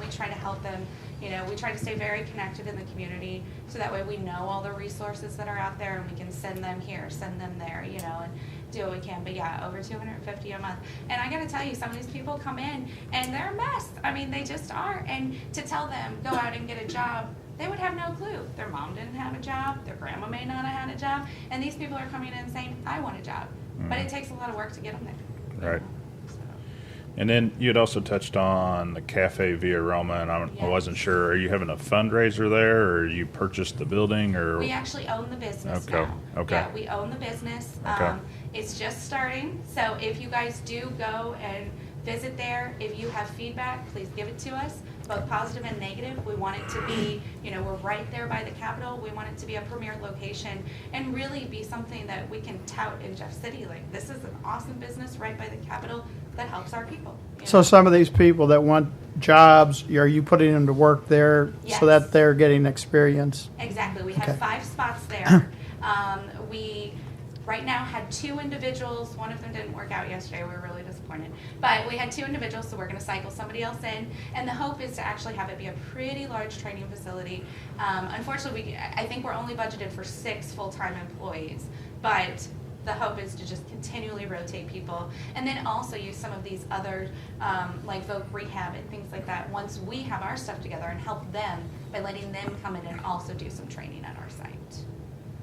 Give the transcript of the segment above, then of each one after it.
we try to help them. You know, we try to stay very connected in the community, so that way we know all the resources that are out there, and we can send them here, send them there, you know, and do what we can. But yeah, over two hundred and fifty a month. And I gotta tell you, some of these people come in and they're a mess. I mean, they just are. And to tell them, go out and get a job, they would have no clue. Their mom didn't have a job, their grandma may not have had a job, and these people are coming in saying, I want a job. But it takes a lot of work to get them there. you Right. know, so. And then you had also touched on the Cafe Via Roma, and I, I wasn't sure. Are you having a fundraiser there, or you purchased the building, or We actually own the business Okay, now. okay. Yeah, we own the business. Okay. Um, It's just starting, so if you guys do go and visit there, if you have feedback, please give it to us, both positive and negative. We want it to be, you know, we're right there by the Capitol. We want it to be a premier location and really be something that we can tout in Jeff City, like, this is an awesome business right by the Capitol that helps our people. you So know? some of these people that want jobs, are you putting them to work there Yes. so that they're getting experience? Exactly, we have Okay. five spots there. Um, we, right now, had two individuals, one of them didn't work out yesterday, we were really disappointed. But we had two individuals, so we're gonna cycle somebody else in, and the hope is to actually have it be a pretty large training facility. Um, unfortunately, we, I think we're only budgeted for six full-time employees, but the hope is to just continually rotate people and then also use some of these other um, like voc rehab and things like that once we have our stuff together and help them by letting them come in and also do some training at our site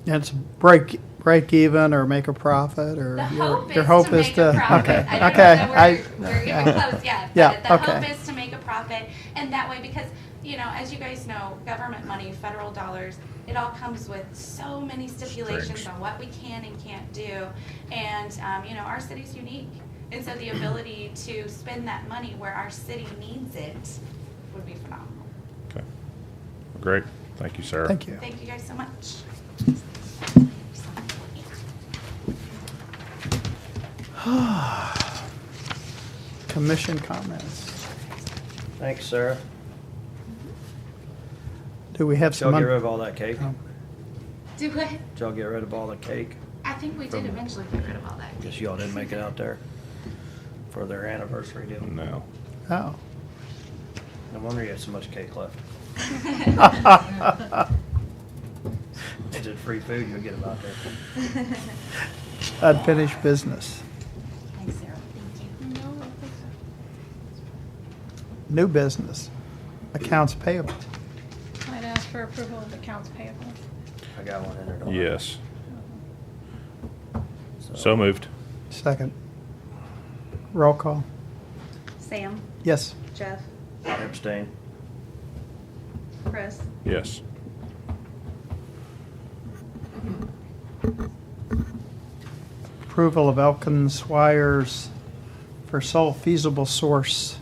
And it's break, break even or make a profit or? the your- hope your is hope to make a profit Okay, I don't okay. know I- that we're, we're even yeah. close yeah, Yeah, but the okay. hope is to make a profit and that way because you know as you guys know government money federal dollars it all comes with so many stipulations Strings. on what we can and can't do and um, you know our city's unique and so the ability to spend that money where our city needs it would be phenomenal Okay. Great. Thank you, Sarah. Thank you. thank you guys so much Commission comments. Thanks, Sarah. Do we have Did y'all some? get un- rid of all that cake? Oh, do what Did y'all get rid of all the cake? I think we did eventually get rid of all that. Guess y'all didn't make it out there for their anniversary deal. No. Oh. No wonder you have so much cake left. Oh. Is it free food you'll get about there? Unfinished business. Thanks, Sarah. Thank you. New business. Accounts payable. I'd ask for approval of accounts payable. I got one in there. don't I? Yes. So moved. Second. Roll call. Sam, Yes. Jeff, Abstain. Chris, Yes. Approval of Elkins Swires for sole feasible source.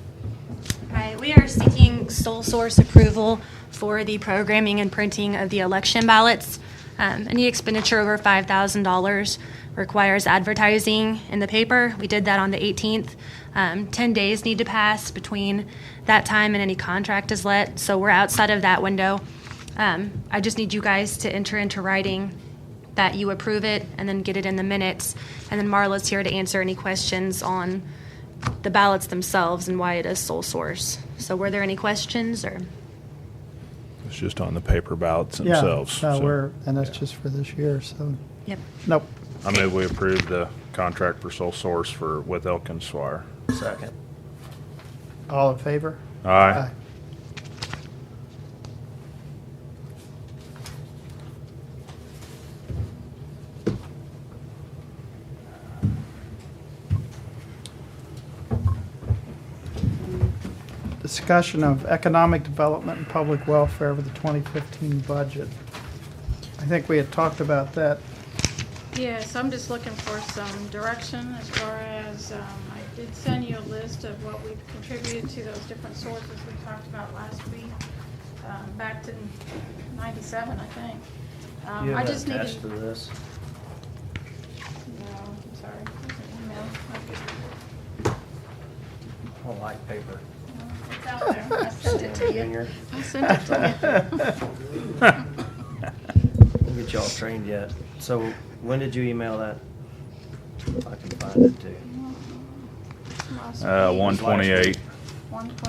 Hi, we are seeking sole source approval for the programming and printing of the election ballots. Um, Any expenditure over $5,000 requires advertising in the paper. We did that on the 18th. Um, 10 days need to pass between that time and any contract is let, so we're outside of that window. Um, I just need you guys to enter into writing that you approve it and then get it in the minutes. And then Marla's here to answer any questions on the ballots themselves and why it is sole source. So were there any questions or? It's just on the paper ballots Yeah, themselves. No, so- we're, and that's yeah. just for this year, so, Yep. nope. I move we approve the contract for sole source for, with Elkins Swire. Second. All in favor? Aye. Discussion of economic development and public welfare over the 2015 budget. I think we had talked about that. Yes, I'm just looking for some direction as far as, um, I did send you a list of what we've contributed to those different sources we talked about last week, um, back to ninety-seven, I think. Um, You I have just that needed. attached to this? No, I'm sorry, There's an email. Okay. I don't like paper. Well, It's out there, I sent it to you. Junior, I sent it to you. we'll get y'all trained yet. So when did you email that? I can find it too. Last Uh, week. one Uh, twenty-eight. One